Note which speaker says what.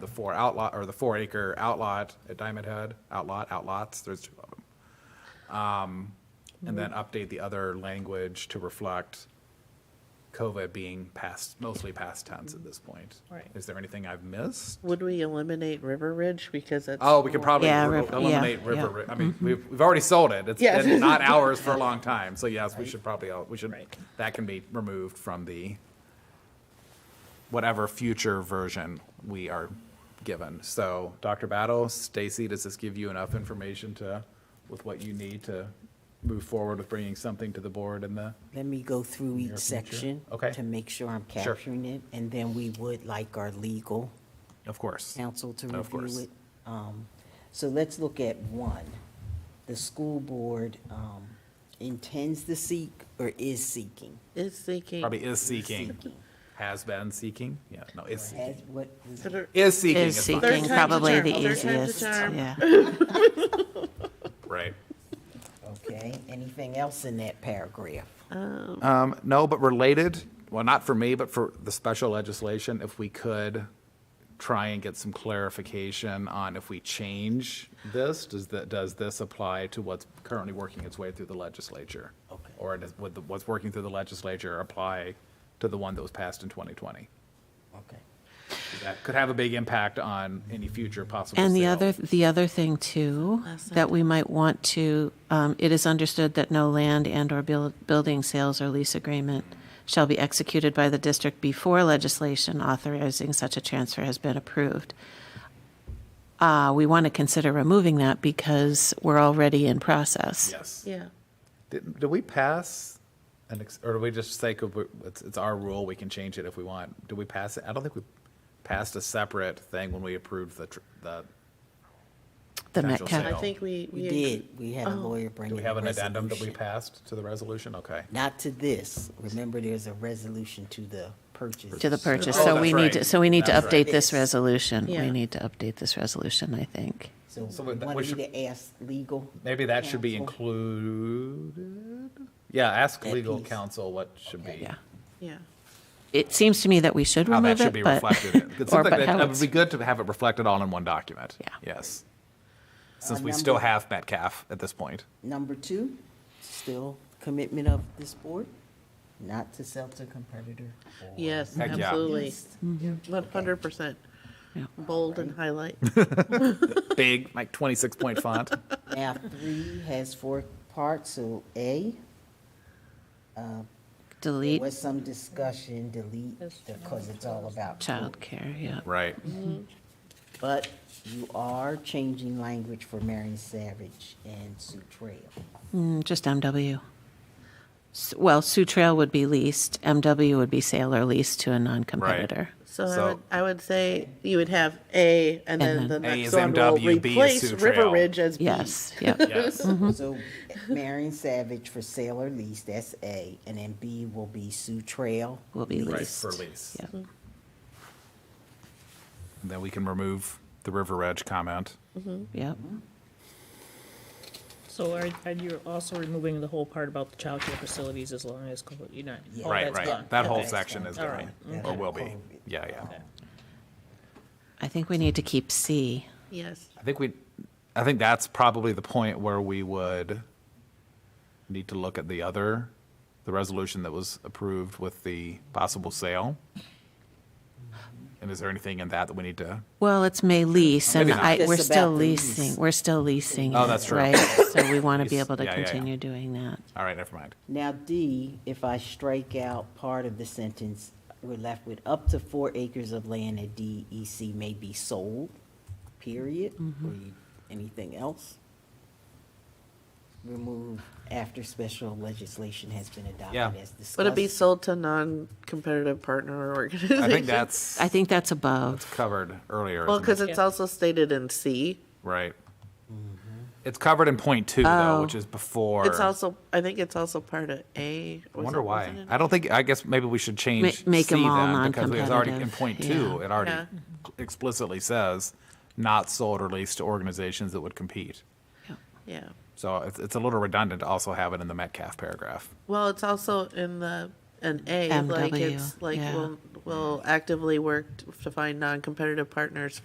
Speaker 1: the four outlot, or the four acre outlot at Diamond Head, outlot, outlots, there's two of them. Um, And then update the other language to reflect COVID being past, mostly past tense at this point.
Speaker 2: Right.
Speaker 1: Is there anything I've missed?
Speaker 2: Would we eliminate River Ridge because it's?
Speaker 1: Oh, we could probably
Speaker 3: Yeah,
Speaker 1: re-
Speaker 3: riv- yeah,
Speaker 1: eliminate
Speaker 3: yeah.
Speaker 1: River, Ri- I mean, we've, we've already sold it. It's
Speaker 2: Yes.
Speaker 1: been not ours for a long time, so yes, we should probably, all- we should,
Speaker 2: Right.
Speaker 1: that can be removed from the whatever future version we are given. So, Dr. Battle, Stacy, does this give you enough information to, with what you need to move forward with bringing something to the board in the?
Speaker 3: Let me go through each
Speaker 1: future?
Speaker 3: section.
Speaker 1: Okay.
Speaker 3: To make sure I'm
Speaker 1: Sure.
Speaker 3: capturing it, and then we would like our legal
Speaker 1: Of course.
Speaker 3: counsel to
Speaker 1: Of course.
Speaker 3: review it. Um, So let's look at one. The school board um, intends to seek or is seeking.
Speaker 2: Is seeking,
Speaker 1: Probably is seeking, has been seeking, yeah, no, is,
Speaker 3: As
Speaker 1: seeking.
Speaker 3: what,
Speaker 2: Consider-
Speaker 1: is seeking
Speaker 4: Is
Speaker 1: is fine.
Speaker 2: Third
Speaker 4: seeking
Speaker 2: time's a
Speaker 4: probably
Speaker 2: charm.
Speaker 4: the
Speaker 2: Third time's a
Speaker 4: easiest,
Speaker 2: charm.
Speaker 4: yeah.
Speaker 1: right.
Speaker 3: okay, anything else in that paragraph?
Speaker 1: Um, no, but related, well, not for me, but for the special legislation, if we could try and get some clarification on if we change this, does that, does this apply to what's currently working its way through the legislature?
Speaker 3: Okay.
Speaker 1: Or does, would the, what's working through the legislature apply to the one that was passed in 2020?
Speaker 3: Okay.
Speaker 1: That could have a big impact on any future possible
Speaker 4: And the
Speaker 1: sale.
Speaker 4: other, the other thing too, that we might want to, um, it is understood that no land and/or buil- building sales or lease agreement shall be executed by the district before legislation authorizing such a transfer has been approved. Uh, We want to consider removing that because we're already in process.
Speaker 1: Yes.
Speaker 2: yeah.
Speaker 1: Did, did we pass an, ex- or do we just say, 'cause we- it's, it's our rule, we can change it if we want? Did we pass it? I don't think we passed a separate thing when we approved the, tr- the,
Speaker 4: The
Speaker 1: Potential
Speaker 4: Metcalf,
Speaker 2: I
Speaker 1: sale.
Speaker 2: think we.
Speaker 3: We did, we had a lawyer bring
Speaker 1: do
Speaker 3: in
Speaker 1: we have
Speaker 3: a
Speaker 1: an addendum that we
Speaker 3: resolution.
Speaker 1: passed to the resolution? Okay.
Speaker 3: Not to this. Remember, there's a resolution to the purchase.
Speaker 4: to the purchase,
Speaker 1: Oh,
Speaker 4: so
Speaker 1: that's
Speaker 4: we need, to
Speaker 1: right.
Speaker 4: so we need to
Speaker 1: That's right.
Speaker 4: update this resolution.
Speaker 2: Yeah.
Speaker 4: We need to update this resolution, I think.
Speaker 3: So
Speaker 1: So
Speaker 3: we
Speaker 1: that-
Speaker 3: want
Speaker 1: we
Speaker 3: you
Speaker 1: should-
Speaker 3: to ask legal.
Speaker 1: Maybe that should be
Speaker 3: Counsel.
Speaker 1: included? Yeah, ask
Speaker 3: That
Speaker 1: legal
Speaker 3: piece.
Speaker 1: counsel what should be,
Speaker 4: Yeah.
Speaker 2: Yeah.
Speaker 4: It seems to me that we should
Speaker 1: how that
Speaker 4: remove
Speaker 1: should
Speaker 4: it,
Speaker 1: be
Speaker 4: but-
Speaker 1: reflected. in- It's
Speaker 4: or
Speaker 1: something
Speaker 4: but
Speaker 1: that,
Speaker 4: how
Speaker 1: it would
Speaker 4: it's-
Speaker 1: be good to have it reflected all in one document.
Speaker 4: Yeah.
Speaker 1: Yes. Since
Speaker 3: Uh,
Speaker 1: we still
Speaker 3: number-
Speaker 1: have Metcalf at this point.
Speaker 3: Number two, still commitment of this board, not to sell to competitor. or-
Speaker 2: Yes,
Speaker 1: Heck yeah.
Speaker 2: absolutely. Mm-hmm.
Speaker 3: Yes.
Speaker 2: One hundred percent.
Speaker 4: Yeah.
Speaker 2: Bold and highlight.
Speaker 1: Big, like 26-point font.
Speaker 3: Now, three has four parts, so A, there
Speaker 4: Delete
Speaker 3: was some discussion, delete, because it's all about.
Speaker 4: childcare, yeah.
Speaker 1: Right.
Speaker 3: But you are changing language for Marion Savage and Sue Trail.
Speaker 4: Mm, Just MW. S- Well, Sioux Trail would be leased, MW would be sale or lease to a non-competitor.
Speaker 2: So I
Speaker 1: So-
Speaker 2: would, I would say you would have A and then
Speaker 4: And
Speaker 2: the
Speaker 4: then-
Speaker 1: A
Speaker 2: next
Speaker 1: is
Speaker 2: one will
Speaker 1: MW, B is
Speaker 2: replace
Speaker 1: Sioux
Speaker 2: River
Speaker 1: Trail.
Speaker 2: Ridge as B.
Speaker 4: Yes, yep.
Speaker 1: Yes.
Speaker 2: Mm-hmm.
Speaker 3: So Marion Savage for sale or lease, that's A, and then B will be Sue Trail.
Speaker 4: Will be
Speaker 1: Right,
Speaker 4: leased.
Speaker 1: for lease.
Speaker 4: Yep.
Speaker 1: And Then we can remove the River Edge comment.
Speaker 4: Yep.
Speaker 1: Mm-hmm.
Speaker 5: So are, and you're also removing the whole part about the childcare facilities as long as, co- you're not, all
Speaker 1: Right,
Speaker 5: that's
Speaker 1: right.
Speaker 5: gone.
Speaker 1: That whole
Speaker 5: Okay.
Speaker 1: section is
Speaker 5: All
Speaker 1: gone,
Speaker 3: right.
Speaker 1: or will be.
Speaker 3: Okay.
Speaker 1: Yeah, yeah.
Speaker 4: I think we need to keep C.
Speaker 2: Yes.
Speaker 1: I think we, I think that's probably the point where we would need to look at the other, the resolution that was approved with the possible sale. And is there anything in that that we need to,
Speaker 4: Well, it's may lease, and
Speaker 1: Maybe not.
Speaker 4: I, we're
Speaker 3: Just
Speaker 4: still
Speaker 3: about the lease.
Speaker 4: leasing, we're still leasing.
Speaker 1: Oh,
Speaker 4: it,
Speaker 1: that's true.
Speaker 4: Right, so we want to be
Speaker 1: Lease.
Speaker 4: able to
Speaker 1: Yeah, yeah, yeah.
Speaker 4: continue doing that.
Speaker 1: all right, never mind.
Speaker 3: Now D, if I strike out part of the sentence, we're left with up to four acres of land at DEC may be sold, period. Or you- Anything else? Remove after special legislation has been adopted
Speaker 1: Yeah.
Speaker 3: as discussed.
Speaker 2: Would it be sold to non-competitive partner or organization?
Speaker 1: I think that's
Speaker 4: I think that's above.
Speaker 1: covered earlier. isn't
Speaker 2: Well,
Speaker 1: it?
Speaker 2: because it's
Speaker 5: Yeah.
Speaker 2: also stated in C.
Speaker 1: Right. It's covered in point two, though,
Speaker 4: Oh.
Speaker 1: which is before.
Speaker 2: It's also, I think it's also part of A.
Speaker 1: I
Speaker 2: Was
Speaker 1: wonder
Speaker 2: it-
Speaker 1: why.
Speaker 2: wasn't it?
Speaker 1: I don't think, I guess maybe we should change.
Speaker 4: make 'em
Speaker 1: C
Speaker 4: all
Speaker 1: then, because it was already In
Speaker 4: non-competitive,
Speaker 1: point two,
Speaker 4: yeah.
Speaker 1: it already
Speaker 2: Yeah.
Speaker 1: explicitly says, not sold or leased to organizations that would compete.
Speaker 4: Yep.
Speaker 2: Yeah.
Speaker 1: So it's, it's a little redundant to also have it in the Metcalf paragraph.
Speaker 2: Well, it's also in the, an A, like
Speaker 4: MW,
Speaker 2: it's like,
Speaker 4: yeah.
Speaker 2: we'll, we'll actively work to find non-competitive partners